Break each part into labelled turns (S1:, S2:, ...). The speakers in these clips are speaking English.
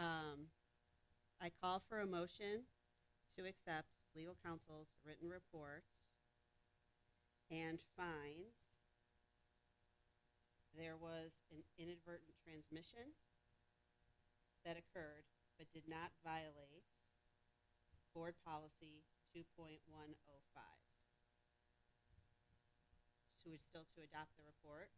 S1: Um, I call for a motion to accept legal counsel's written report and find there was an inadvertent transmission that occurred but did not violate board policy two point one oh five. So it's still to adopt the report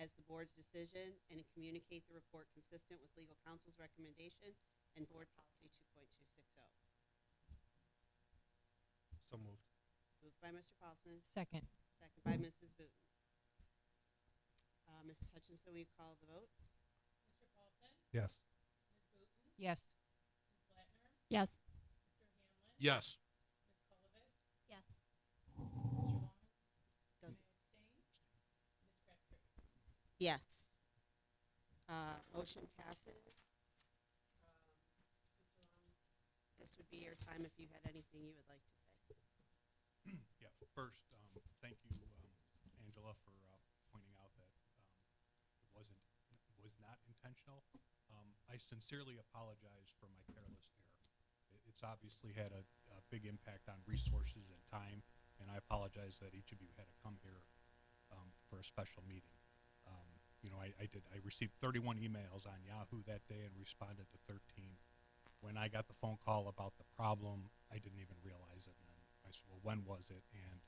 S1: as the board's decision and communicate the report consistent with legal counsel's recommendation and board policy two point two six oh.
S2: So moved.
S1: Moved by Mr. Paulson,
S3: Second.
S1: second by Mrs. Booten. Uh, Mrs. Hutchinson, will you call the vote?
S4: Mr. Paulson,
S2: Yes.
S4: Ms. Booten,
S3: Yes.
S4: Ms. Blattner,
S3: Yes.
S4: Mr. Hamlin,
S5: Yes.
S4: Ms. Colovitz,
S3: Yes.
S4: Mr. Long, may I
S1: Does,
S4: abstain? Ms. Crabtree.
S1: yes. Uh, motion passes. Um, Mr. Long, This would be your time if you had anything you would like to say.
S5: Yeah, first, um, thank you, um, Angela, for, uh, pointing out that, um, it wasn't, it was not intentional. Um, I sincerely apologize for my careless error. It, it's obviously had a, a big impact on resources and time, and I apologize that each of you had to come here, um, for a special meeting. Um, you know, I, I did, I received thirty-one emails on Yahoo that day and responded to thirteen. when I got the phone call about the problem, I didn't even realize it. And I said, "Well, when was it?" And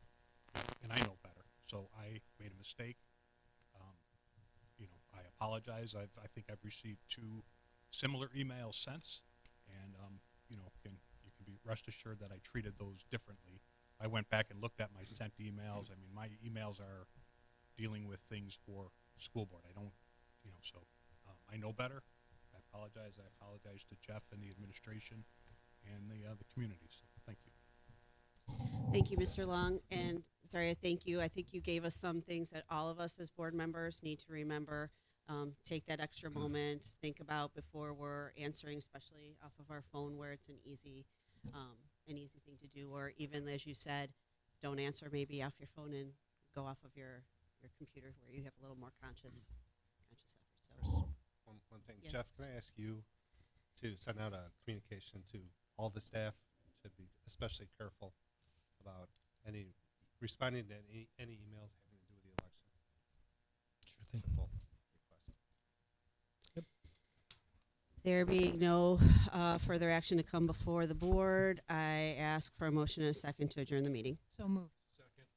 S5: and I know better, so I made a mistake. Um, you know, I apologize. I've, I think I've received two similar emails since, and um, you know, can you can be rest assured that I treated those differently. I went back and looked at my sent emails. I mean, my emails are dealing with things for school board. I don't, you know, so um, I know better. I apologize. I apologize to Jeff and the administration and the, uh, the community. So thank you.
S1: Thank you, Mr. Long, and Zaria, thank you. I think you gave us some things that all of us as board members need to remember. Um, take that extra moment, think about before we're answering, especially off of our phone where it's an easy, um, an easy thing to do. Or even as you said, don't answer maybe off your phone and go off of your, your computer where you have a little more conscious, conscious effort. So,
S2: One, one thing,
S1: Yeah.
S2: Jeff, can I ask you to send out a communication to all the staff to be especially careful about any, responding to any, any emails having to do with the election? Sure thing. Simple request.
S1: There being no uh, further action to come before the board, I ask for a motion and a second to adjourn the meeting.
S3: So moved.
S5: Second.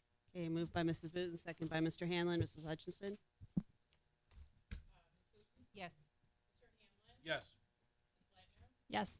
S1: Okay, moved by Mrs. Booten, second by Mr. Hanlon. Mrs. Hutchinson?
S4: Uh, Ms. Booten,
S3: Yes.
S4: Mr. Hamlin,
S5: Yes.
S4: Ms. Blattner,
S3: Yes.